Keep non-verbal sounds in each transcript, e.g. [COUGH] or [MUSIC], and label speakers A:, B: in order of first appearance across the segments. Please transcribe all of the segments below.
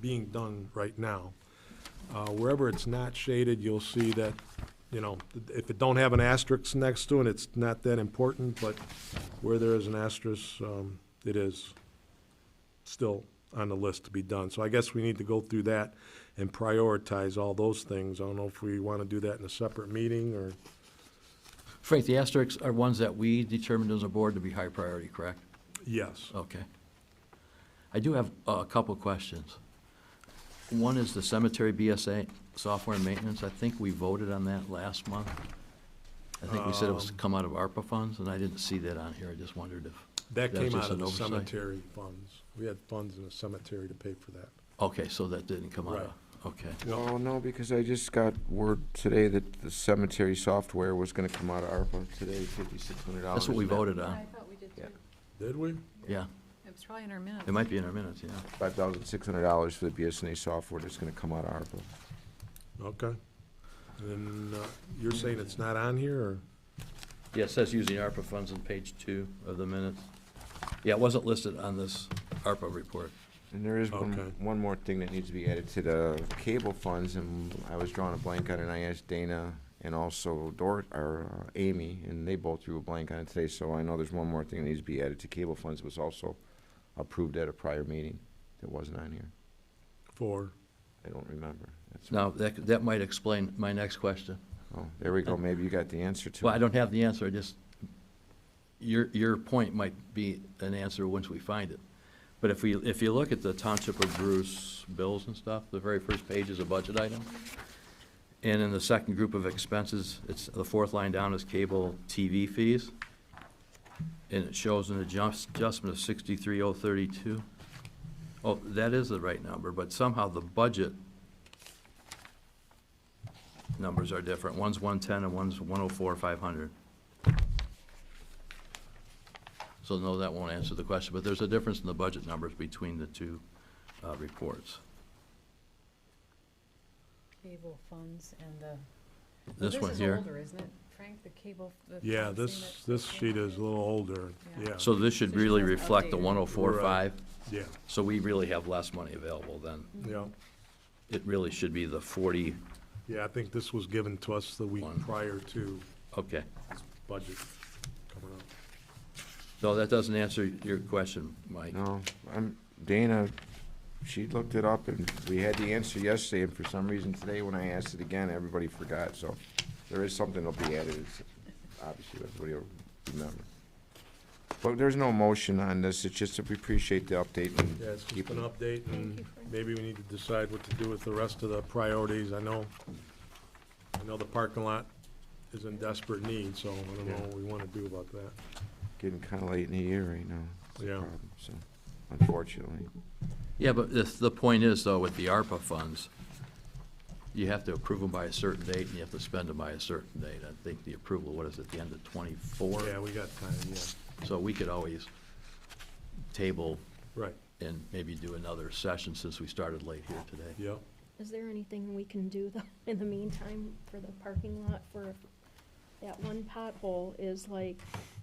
A: being done right now. Uh, Wherever it's not shaded, you'll see that, you know, if it don't have an asterisk next to it, it's not that important, but where there is an asterisk, um, it is still on the list to be done. So I guess we need to go through that and prioritize all those things. I don't know if we want to do that in a separate meeting or,
B: Frank, the asterisks are ones that we determined as a board to be high priority, correct?
A: yes.
B: Okay. I do have uh, a couple questions. One is the cemetery BSA software and maintenance. I think we voted on that last month. I think we said it was to come out of ARPA funds, and I didn't see that on here. I just wondered if,
A: That
B: That was
A: came out
B: just
A: of
B: an
A: the
B: oversight.
A: cemetery funds. We had funds in the cemetery to pay for that.
B: okay, so that didn't come out
A: Right.
B: of, okay.
C: Oh, no, because I just got word today that the cemetery software was gonna come out of ARPA today, fifty-six hundred dollars.
B: That's what we voted on,
D: I thought we did too.
C: Yeah.
A: Did we?
B: yeah.
D: It was probably in our minutes.
B: It might be in our minutes, yeah.
C: Five thousand six hundred dollars for the BSNA software that's gonna come out of ARPA.
A: Okay. And uh, you're saying it's not on here, or?
B: Yeah, it says using ARPA funds on page two of the minutes. Yeah, it wasn't listed on this ARPA report.
C: And there is one,
A: Okay.
C: one more thing that needs to be added to the cable funds, and I was drawing a blank on it, and I asked Dana and also Dor, or uh, Amy, and they both drew a blank on it today, so I know there's one more thing that needs to be added to cable funds, was also approved at a prior meeting that wasn't on here.
A: For,
C: I don't remember. That's-
B: Now, that, that might explain my next question.
C: Oh, there we go, maybe you got the answer to it.
B: Well, I don't have the answer, I just, your, your point might be an answer once we find it. But if we, if you look at the Township of Bruce bills and stuff, the very first page is a budget item. And in the second group of expenses, it's, the fourth line down is cable TV fees. And it shows an adjust- adjustment of sixty-three oh thirty-two. Oh, that is the right number, but somehow the budget numbers are different. One's 110 and one's 104, 500. So no, that won't answer the question, but there's a difference in the budget numbers between the two uh, reports.
D: Cable funds and the.
B: This one here.
D: is older, isn't it, Frank, the cable? the
A: yeah,
D: funds thing
A: this,
D: that-
A: this sheet is a little older,
D: Yeah.
A: yeah.
B: So this should
D: So she
B: really
D: has
B: reflect the
D: updated.
B: 104,
A: Right.
B: 5.
A: Yeah,
B: So we really have less money available then.
A: yeah.
B: It really should be the 40,
A: Yeah, I think this was given to us the week
B: One.
A: prior to
B: okay.
A: this budget coming up.
B: No, that doesn't answer your question, Mike.
C: No, I'm, Dana, she looked it up and we had the answer yesterday and for some reason today when I asked it again, everybody forgot, so there is something that'll be added, it's, obviously, everybody will remember. But there's no motion on this, it's just that we appreciate the update and
A: Yeah, it's
C: keep
A: just an update,
D: Thank
A: and
D: you, Frank.
A: maybe we need to decide what to do with the rest of the priorities. I know, I know the parking lot is in desperate need, so I don't know what we want to do about that.
C: getting kinda late in the year right now. It's a
A: Yeah.
C: problem, So, unfortunately.
B: Yeah, but the, the point is though, with the ARPA funds, you have to approve them by a certain date and you have to spend them by a certain date. I think the approval, what is it, the end of twenty-four?
A: Yeah, we got time, yeah,
B: So we could always table
A: right,
B: and maybe do another session since we started late here today.
A: yeah.
E: Is there anything we can do though, [LAUGHS] in the meantime, for the parking lot for that one pothole is like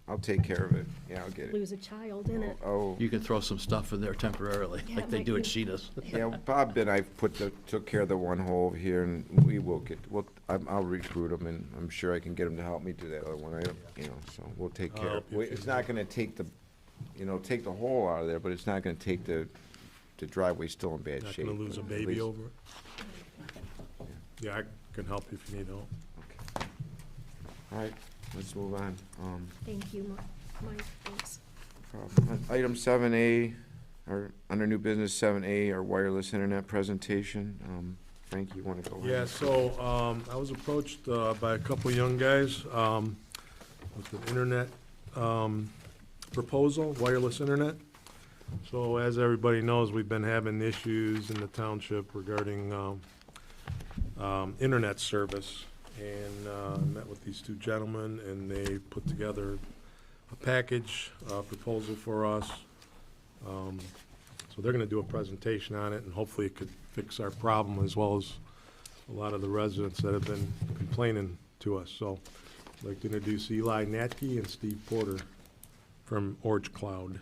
C: I'll take care of it, yeah, I'll get it.
E: lose a child in it?
C: Oh.
B: You can throw some stuff in there temporarily,
E: Yeah,
B: like they
E: like
B: do at
E: you-
B: Sheena's.
C: Yeah, Bob and I put the, took care of the one hole here, and we will get, well, I'm, I'll recruit him, and I'm sure I can get him to help me do that other one, I, don't- you know, so we'll take
A: I'll
C: care of
A: help you
C: it.
A: if you
C: It's not gonna take the, you know, take the hole out of there, but it's not gonna take the, the driveway still in bad
A: Not
C: shape.
A: gonna lose a
C: but at
A: baby
C: least-
A: over it? Yeah, I can help if you need help.
C: okay. All right, let's move on, um.
E: Thank you, Mi- Mike, thanks.
C: Um, Item seven A, or under new business seven A, our wireless internet presentation. Um, Frank, you wanna go? ahead?
A: Yeah, so, um, I was approached, uh, by a couple young guys, um, with an internet, um, proposal, wireless internet. So as everybody knows, we've been having issues in the township regarding, um, um, internet service. And, uh, met with these two gentlemen and they put together a package, uh, proposal for us. Um, So they're gonna do a presentation on it and hopefully it could fix our problem as well as a lot of the residents that have been complaining to us. So I'd like to introduce Eli Natke and Steve Porter from Orange Cloud.